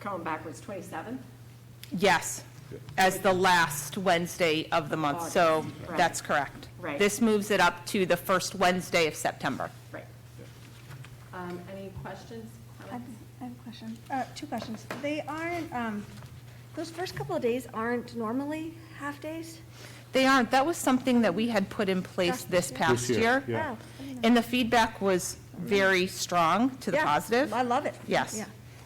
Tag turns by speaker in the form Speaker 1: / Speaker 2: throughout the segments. Speaker 1: going backwards, 27th?
Speaker 2: Yes, as the last Wednesday of the month, so
Speaker 1: August, right.
Speaker 2: that's correct.
Speaker 1: Right.
Speaker 2: This moves it up to the first Wednesday of September.
Speaker 1: Right. Um, Any questions?
Speaker 3: I have
Speaker 1: comments?
Speaker 3: I have a question, uh, two questions. They aren't, um, those first couple of days aren't normally half-days?
Speaker 2: They aren't, that was something that we had put in place
Speaker 3: Just
Speaker 2: this
Speaker 3: this
Speaker 2: past
Speaker 4: year,
Speaker 2: year.
Speaker 4: yeah.
Speaker 3: Oh, I didn't know.
Speaker 2: And the feedback was very strong to the
Speaker 3: Yeah,
Speaker 2: positive.
Speaker 3: I love it.
Speaker 2: Yes.
Speaker 3: Yeah,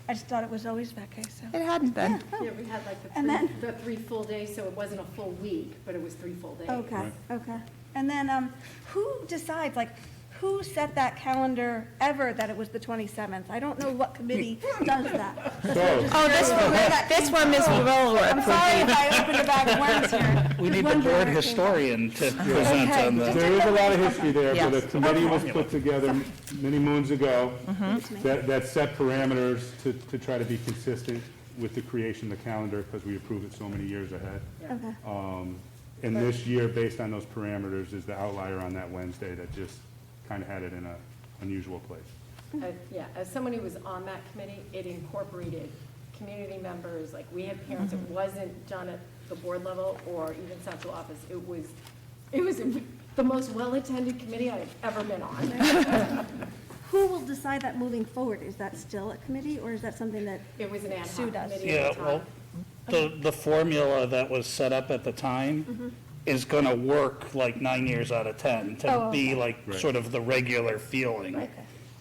Speaker 3: I just thought it was always that case, so.
Speaker 2: It hadn't been.
Speaker 1: Yeah, we had like the
Speaker 3: And
Speaker 1: three,
Speaker 3: then-
Speaker 1: the three full days, so it wasn't a full week, but it was three full days.
Speaker 3: Okay, okay. And then, um, who decides, like, who set that calendar ever that it was the 27th? I don't know what committee does that.
Speaker 2: Oh, this one, this one, Ms.
Speaker 3: I'm
Speaker 2: Rowland.
Speaker 3: sorry if I opened a bag of worms here.
Speaker 5: We
Speaker 3: Just
Speaker 5: need the
Speaker 3: wondering
Speaker 5: board
Speaker 3: where it came from.
Speaker 5: historian to present
Speaker 3: Okay.
Speaker 5: on the,
Speaker 4: There is a lot of history there, but a
Speaker 2: Yes.
Speaker 4: committee was put together many moons ago that, that set parameters to, to try to be consistent with the creation of the calendar, because we approved it so many years ahead.
Speaker 3: Okay.
Speaker 4: Um, And this year, based on those parameters, is the outlier on that Wednesday that just kind of had it in a unusual place.
Speaker 1: Uh, Yeah, as someone who was on that committee, it incorporated community members, like, we had parents,
Speaker 3: Mm-hmm.
Speaker 1: it wasn't done at the board level or even central office, it was, it was the most well-attended committee I've ever been on.
Speaker 3: Who will decide that moving forward? Is that still a committee, or is that something that,
Speaker 1: It was an ad
Speaker 3: Sue
Speaker 1: hoc
Speaker 3: does.
Speaker 1: committee
Speaker 5: yeah,
Speaker 1: at the
Speaker 5: well,
Speaker 1: time.
Speaker 5: the, the formula that was set up at the
Speaker 3: Mm-hmm.
Speaker 5: time is going to work like nine years out of 10, to
Speaker 3: Oh,
Speaker 5: be like sort of the regular feeling.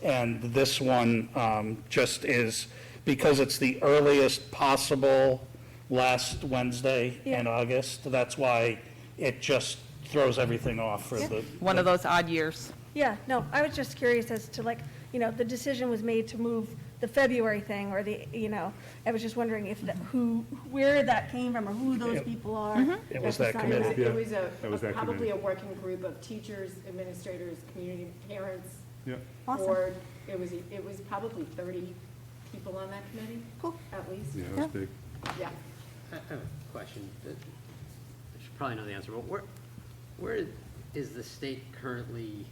Speaker 5: And this one um, just is, because it's the earliest possible last Wednesday in
Speaker 3: Yeah.
Speaker 5: August, that's why it just throws everything off for the.
Speaker 2: One of those odd years.
Speaker 3: yeah, no, I was just curious as to like, you know, the decision was made to move the February thing, or the, you know, I was just wondering if, that- who, where that came from, or who those
Speaker 5: It-
Speaker 3: people are.
Speaker 5: It was that
Speaker 3: decided
Speaker 1: It
Speaker 5: committee.
Speaker 1: was- It was
Speaker 4: that
Speaker 1: a,
Speaker 4: was that
Speaker 1: probably
Speaker 4: committee.
Speaker 1: a working group of teachers, administrators, community, parents,
Speaker 4: Yeah.
Speaker 3: Awesome.
Speaker 1: board. It was, it was probably 30 people on that committee,
Speaker 3: Cool.
Speaker 1: at least,
Speaker 4: Yeah, it was big.
Speaker 1: yeah.
Speaker 6: I I have a question. that- I should probably know the answer, but where, where is the state currently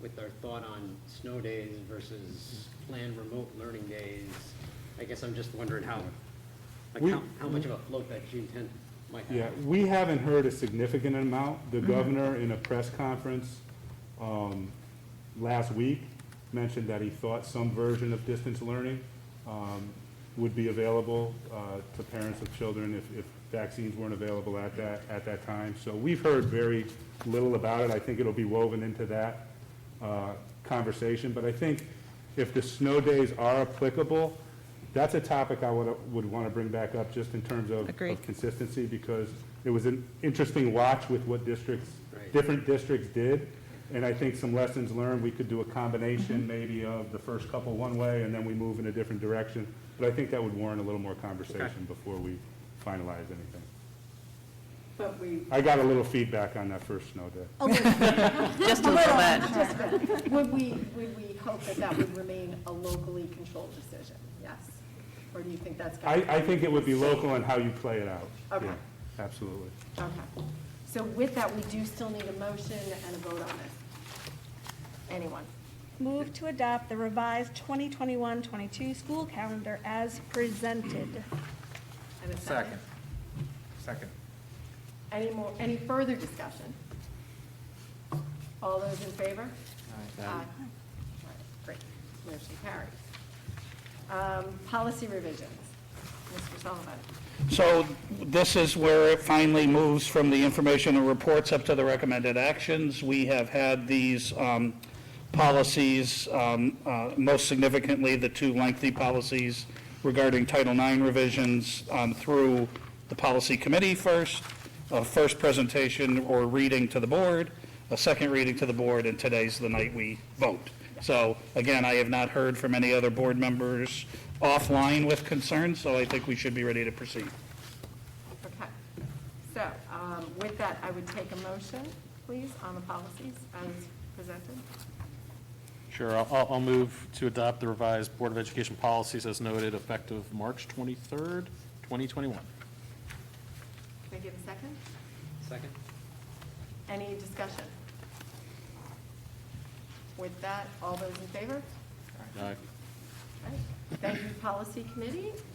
Speaker 6: with their thought on snow days versus planned remote learning days? I guess I'm just wondering how, like,
Speaker 4: We-
Speaker 6: how, how much of a float that June tenth might have.
Speaker 4: Yeah, we haven't heard a significant amount. The governor, in a press conference um, last week, mentioned that he thought some version of distance learning um, would be available uh, to parents of children if if vaccines weren't available at that, at that time. So we've heard very little about it. I think it'll be woven into that uh, conversation. But I think if the snow days are applicable, that's a topic I would, would want to bring back up just in terms of of
Speaker 2: Agreed.
Speaker 4: consistency because it was an interesting watch with what districts,
Speaker 6: Right.
Speaker 4: different districts did. And I think some lessons learned, we could do a combination maybe of the first couple one way and then we move in a different direction. But I think that would warrant a little more conversation before we finalize anything.
Speaker 1: But we,
Speaker 4: I got a little feedback on that first snow day.
Speaker 2: Just a little bit.
Speaker 1: would we, would we hope that that would remain a locally controlled decision? Yes? Or do you think that's?
Speaker 4: I,
Speaker 1: gonna-
Speaker 4: I think it would be local in how you play it out.
Speaker 1: Okay.
Speaker 4: Yeah, Absolutely.
Speaker 1: Okay. So with that, we do still need a motion and a vote on this. Anyone?
Speaker 3: Move to adopt the revised 2021-22 school calendar as presented.
Speaker 1: And a
Speaker 7: Second. Second.
Speaker 1: Any more, any further discussion? All those in favor? Aye. All right, Great, motion carries. Um, Policy revisions, Mr. Sullivan.
Speaker 5: So this is where it finally moves from the information and reports up to the recommended actions. We have had these um, policies, um, uh, most significantly, the two lengthy policies regarding Title IX revisions um, through the policy committee first, a first presentation or reading to the board, a second reading to the board, and today's the night we vote. So again, I have not heard from any other board members offline with concerns, so I think we should be ready to proceed.
Speaker 1: Okay. So um, with that, I would take a motion, please, on the policies as presented.
Speaker 7: Sure, I'll- I'll, I'll move to adopt the revised Board of Education policies as noted effective March 23rd, 2021.
Speaker 1: Can I get a second?
Speaker 6: Second?
Speaker 1: Any discussion? With that, all those in favor?
Speaker 7: Uh,
Speaker 1: All right. Thank you, Policy Committee.